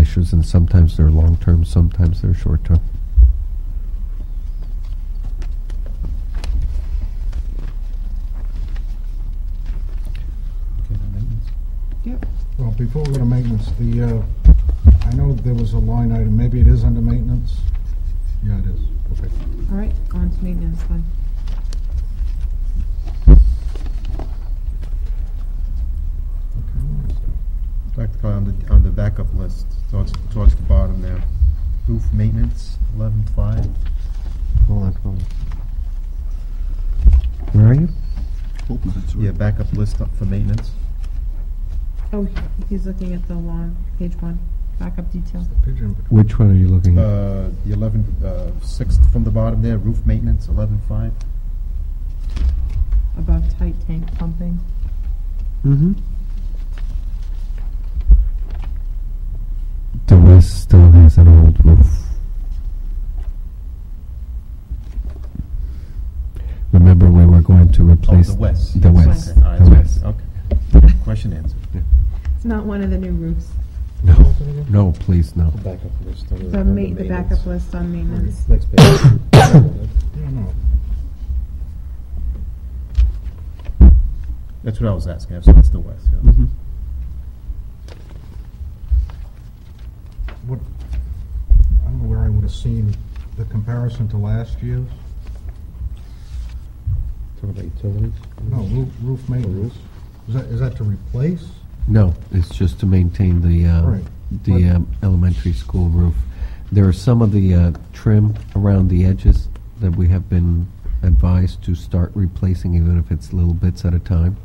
issues, and sometimes they're long-term, sometimes they're short-term. Okay, then maintenance. Yep. Well, before we go to maintenance, the, uh, I know there was a line item, maybe it is under maintenance? Yeah, it is, okay. All right, on to maintenance then. Practically on the, on the backup list, towards, towards the bottom there. Roof maintenance, eleven five. Hold on, hold on. Where are you? Yeah, backup list up for maintenance. Oh, he- he's looking at the long, page one, backup detail. Pigeon, but Which one are you looking at? Uh, the eleven, uh, sixth from the bottom there, roof maintenance, eleven five. above tight tank pumping. Mm-hmm. The West still has an old roof. Remember, we were going to Oh, replace the west. The West. West. Okay, all right, The the West. west, okay. Question answered. It's not one of the new roofs. No, no, please, no. Backup list. The ma- the backup list on maintenance. Next page. I don't know. That's what I was asking, so it's the west, yeah. Mhm. What, I don't know where I would have seen the comparison to last year's. Talking about utilities? No, roof, Oh, roof maintenance. Is that, is that to replace? No, it's just to maintain the, uh, Right. the But- um, elementary school roof. There are some of the uh, trim around the edges that we have been advised to start replacing, even if it's little bits at a time.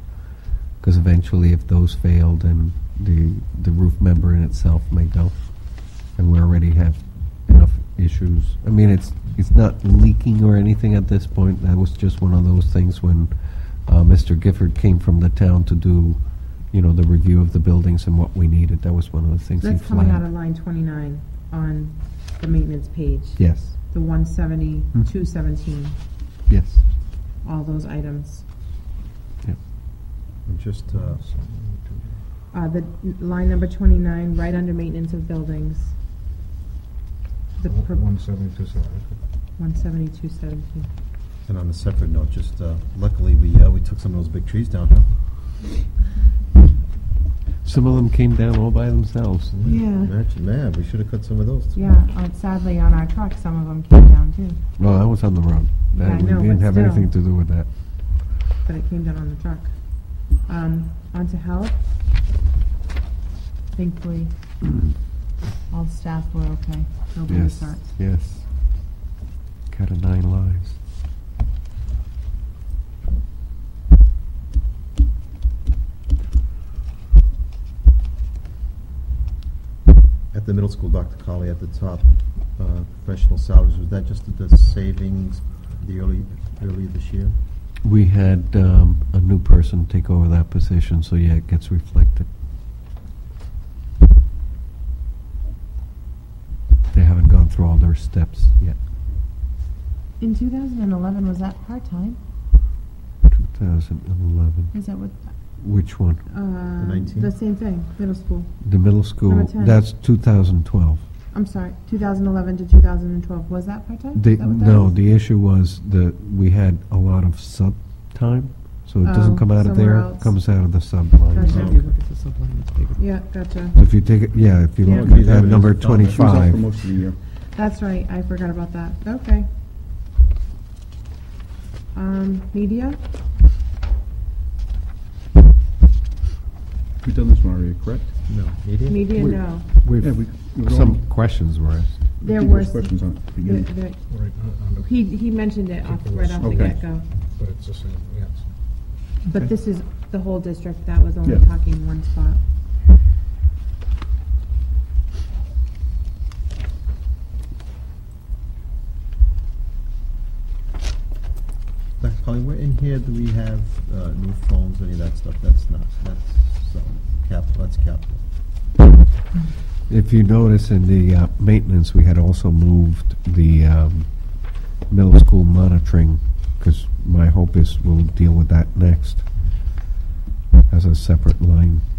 Because eventually, if those fail, then the, the roof member in itself may go. And we already have enough issues. I mean, it's, it's not leaking or anything at this point. That was just one of those things when uh, Mr. Gifford came from the town to do, you know, the review of the buildings and what we needed. That was one of the things he That's coming out of flagged. line twenty-nine on the maintenance page. Yes, The one seventy, Hmm. two seventeen, yes. all those items. And Just, uh, Uh, the n- line number twenty-nine, right under maintenance of buildings. The pro- One seventy-two, one seventy, two seventeen. and on a separate note, just, uh, luckily, we, uh, we took some of those big trees down, huh? Some of them came down all by themselves. Yeah, Imagine, man, we should have cut some of those. too. yeah, uh, sadly on our truck, some of them came down too, Well, I was on the road. Uh, Yeah, I we know, didn't but have still. anything to do with that. but it came down on the truck. Um, on to health. Thankfully, all the staff were okay, nobody was Yes, hurt. yes. Cut of nine lives. At the middle school, Dr. Colley, at the top, uh, professional salaries, was that just the savings the early, early this year? We had um, a new person take over that position, so yeah, it gets reflected. They haven't gone through all their steps yet. In 2011, was that part-time? 2011. Is that what? Which one? um, 19? The same thing, middle school. The middle school. Number 10. That's 2012. I'm sorry, 2011 to 2012, was that part-time? The, Is that what that no, is? the issue was that we had a lot of sub time, so it Oh, doesn't come out of somewhere there. else. It comes out of the sub line. Gotcha. So Okay. at the subline, it's bigger. Yeah, gotcha. if you take it, yeah, if you Yeah. look at Yeah. that number It's on there. It was She was out for 25, most of the year. That's right, I forgot about that, okay. Um, media, We've done this one already, correct? No. Media? media, Wait. no. we've- Yeah, we- we were some on- questions were asked. I There think were, there's Questions on it. at the the- beginning. the- Right, uh, under- he, he mentioned it off, right off the Okay. get-go. but it's the same, yeah. it's- But this is the whole district, that was only Yeah. talking one spot. Dr. Colley, where in here do we have uh, new phones, any of that stuff? That's not, that's um, capital, that's capital. If you notice in the uh, maintenance, we had also moved the um, middle school monitoring, because my hope is we'll deal with that next as a separate line. uh,